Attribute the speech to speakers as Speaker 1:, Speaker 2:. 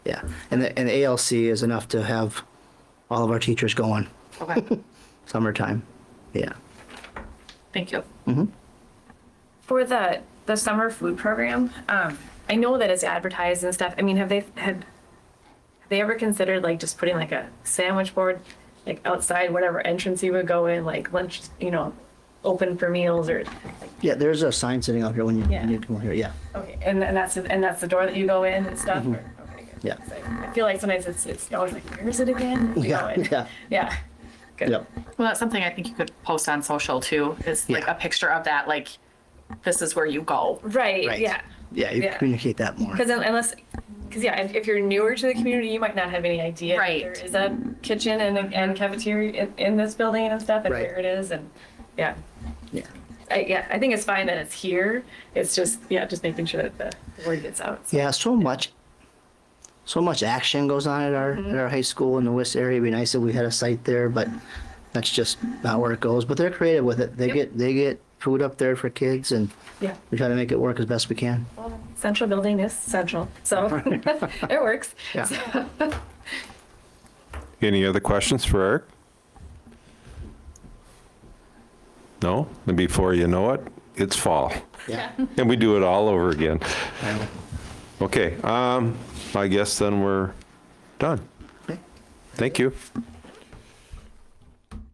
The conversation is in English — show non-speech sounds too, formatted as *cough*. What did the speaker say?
Speaker 1: And the, and the ALC is enough to have all of our teachers going
Speaker 2: Okay,
Speaker 1: summertime. Yeah.
Speaker 2: thank you.
Speaker 3: For the, the summer food program, um, I know that it's advertised and stuff. I mean, have they, had, have they ever considered like just putting like a sandwich board, like outside whatever entrance you would go in, like lunch, you know, open for meals or,
Speaker 1: Yeah, there's a sign sitting out here when you, when you
Speaker 3: Yeah.
Speaker 1: come here. Yeah.
Speaker 3: okay, and, and that's, and that's the door that you go in and stuff? or- okay, good.
Speaker 1: Mm-hmm. Yeah.
Speaker 3: 'Cause I I feel like sometimes it's, it's always like, where is it again? You know,
Speaker 1: *laughs* Yeah.
Speaker 3: and-
Speaker 1: Yeah.
Speaker 3: Yeah. Good.
Speaker 1: Yeah.
Speaker 2: Well, that's something I think you could post on social too, is like
Speaker 1: Yeah.
Speaker 2: a picture of that, like, this is where you go.
Speaker 3: Right,
Speaker 1: Right.
Speaker 3: yeah.
Speaker 1: Yeah. You
Speaker 3: Yeah.
Speaker 1: communicate that more.
Speaker 3: Because unless, because yeah, if, if you're newer to the community, you might not have any idea. that
Speaker 2: Right.
Speaker 3: There is a kitchen and, a- and cafeteria in, in this building and stuff and
Speaker 1: Right.
Speaker 3: where it is and, yeah.
Speaker 1: Yeah.
Speaker 3: I, yeah, I think it's fine that it's here. It's just, yeah, just making sure that the word gets out. so.
Speaker 1: Yeah. So much, so much action goes on at our,
Speaker 3: Mm-hmm.
Speaker 1: at our high school in the West area. It'd be nice if we had a site there, but that's just not where it goes. But they're creative with it. They
Speaker 3: Yep.
Speaker 1: get, they get food up there for kids and
Speaker 3: Yeah.
Speaker 1: we try to make it work as best we can.
Speaker 3: Well, Central building is central,
Speaker 1: *laughs*
Speaker 3: so *laughs* it works.
Speaker 1: Yeah.
Speaker 3: So,
Speaker 4: Any other questions for Eric? No? Then before you know it, it's fall. *laughs*
Speaker 1: Yeah.
Speaker 4: And we do it all over again.
Speaker 1: I know.
Speaker 4: Okay, um, I guess then we're done.
Speaker 1: Okay.
Speaker 4: Thank you.